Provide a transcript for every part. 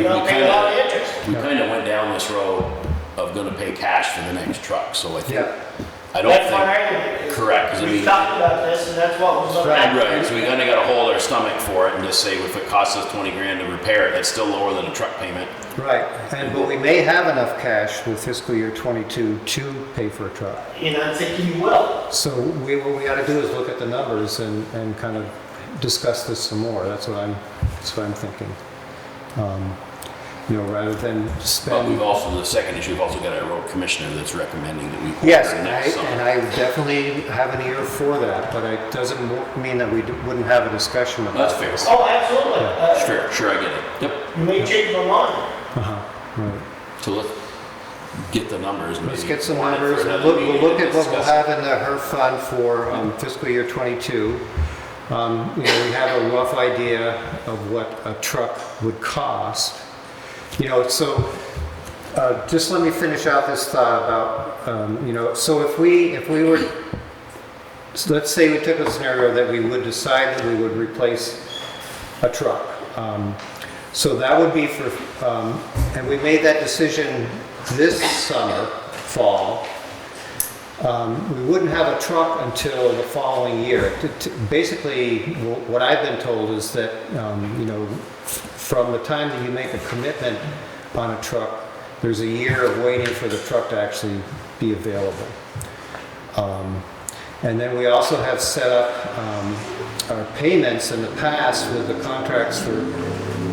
You're not paying a lot of interest. We kind of went down this road of gonna pay cash for the next truck, so I think, Yeah. I don't That's why think, I did it. correct, 'cause I We mean- talked about this and that's what was looking at. right, so we kinda gotta hold our stomach for it and just say, if it costs us twenty grand to repair it, that's still lower than a truck payment. Right, and, but we may have enough cash for fiscal year '22 to pay for a truck. And I'm thinking you will. So we, what we gotta do is look at the numbers and, and kind of discuss this some more, that's what I'm, that's what I'm thinking. Um, You know, rather than But we've spend. also, the second issue, we've also got our road commissioner that's recommending that we. order Yes, and I, next and summer. I definitely have an ear for that, but it doesn't mo- mean that we d- wouldn't have a discussion about That's it. fair, Oh, absolutely. Uh, sure, sure, I get it, yep, You may change my mind. Uh-huh, right. so let's get the numbers. and Let's maybe get some warn it for numbers, and another look, we'll meeting look and at what we'll discuss it. have in the HERF fund for um, fiscal year '22. Um, You know, we have a rough idea of what a truck would cost. You know, so, uh, just let me finish out this thought about, um, you know, so if we, if we were, so let's say we took a scenario that we would decide that we would replace a truck. Um, So that would be for, um, and we made that decision this summer, fall. Um, We wouldn't have a truck until the following year. T- t- Basically, wh- what I've been told is that, um, you know, f- from the time that you make a commitment on a truck, there's a year of waiting for the truck to actually be available. Um, And then we also have set up um, our payments in the past with the contracts for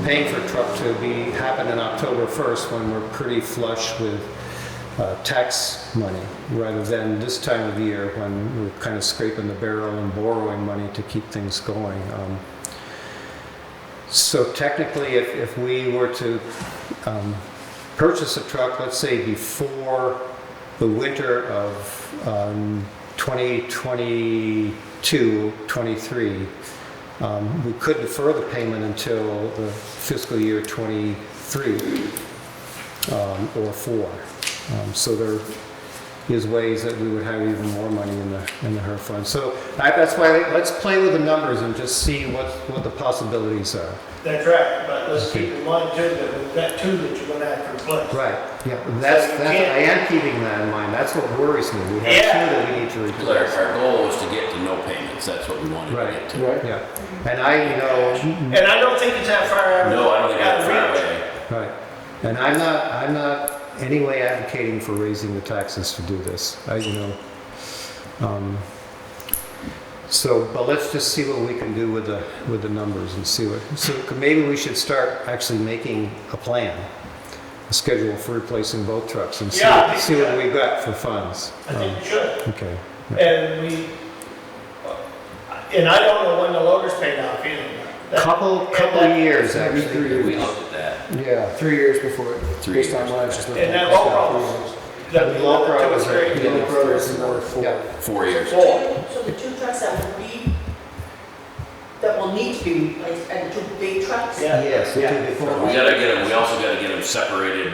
paying for truck to be, happen in October 1st when we're pretty flush with uh, tax money, rather than this time of year when we're kind of scraping the barrel and borrowing money to keep things going. Um, So technically, if, if we were to um, purchase a truck, let's say before the winter of um, 2022, 23, um, we could defer the payment until the fiscal year 23 um, or 4. Um, So there is ways that we would have even more money in the, in the HERF fund. So I- that's why, let's play with the numbers and just see what, what the possibilities are. That's right, but let's keep in mind too that we've got two that you're gonna have to replace. Right, yeah, that's, you that's, I am keeping that in mind, that's what worries me, we have two Yeah. that we need to Because our, replace. our goal was to get to no payments, that's what we wanted to get Right, to. yeah, and I, you know, And I don't think it's that far. out of- No, I don't think out that's of fair reach. way. right, and I'm not, I'm not anyway advocating for raising the taxes to do this, I, you know. um, So, but let's just see what we can do with the, with the numbers and see what, so maybe we should start actually making a plan, a schedule for replacing both trucks and see, Yeah, I think- see what we've got for funds. I Um, think you should. Okay. And we, and I don't know when the loader's paid off either. That- Couple, and couple that- years, Maybe actually. three years. We looked at that. Yeah, three years before, Three based on years. what I was just looking at. And that overall. That And Loper, I that was was right. great. Yeah, the brother is another four. Yeah. Four years. Four. So the two trucks that will be, that will need to be replaced, and two big trucks? Yeah. Yes, we did We before. gotta get them, we also gotta get them separated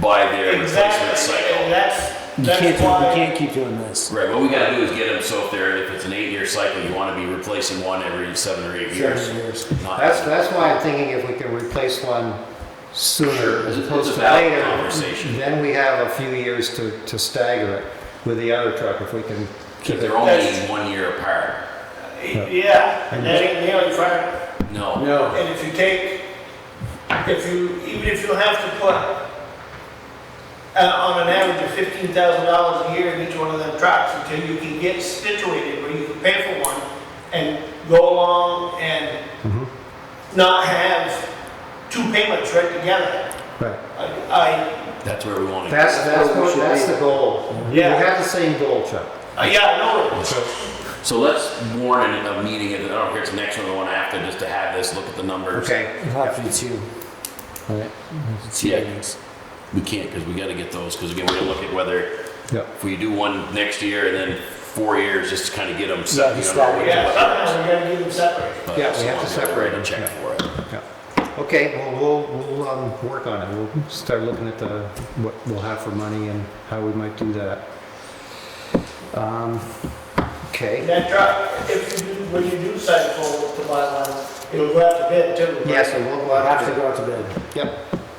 by their replacement Exactly, and cycle. that's, You can't, that's do- why. you can't keep doing this. Right, what we gotta do is get them, so if they're, if it's an eight-year cycle, you wanna be replacing one every seven or eight years. Seven years. Not- That's, that's why I'm thinking if we can replace one sooner as It's a opposed to valid later. conversation. Then we have a few years to, to stagger it with the other truck if we can If keep they're it. only That's- one year apart, Yeah, and that ain't nearly fair. no. No. And if you take, if you, even if you have to put, uh, on an average of fifteen thousand dollars a year in each one of them trucks until you can get situated where you can pay for one and go along and Mhm. not have two payments right together. Right. I, That's where we wanna. That's, that's, That's what we what- should that's be. the goal. We Yeah. have the same goal, Chuck. I, yeah, I know it. So let's warn it a meeting, and I don't care if it's the next one or the one after, just to have this, look at the numbers. Okay. It'll have to be two. Right? Two Yeah. meetings. We can't, because we gotta get those, because again, we're gonna look at whether Yep. If we do one next year and then four years, just to kind of get them Yeah, set, you just know, that, what Yeah, to sometimes we gotta get them separated. look at, Yeah, but we have to someone will separate write a Check them, for it. Yeah. Okay, well, we'll, we'll, um, work on it. We'll start looking at the, what we'll have for money and how we might do that. Um, And okay. that truck, if you do, when you do decide to go to buy one, it'll go out to bid too. right? Yes, and we'll, we'll It'll have have to to, go out to bid. yep.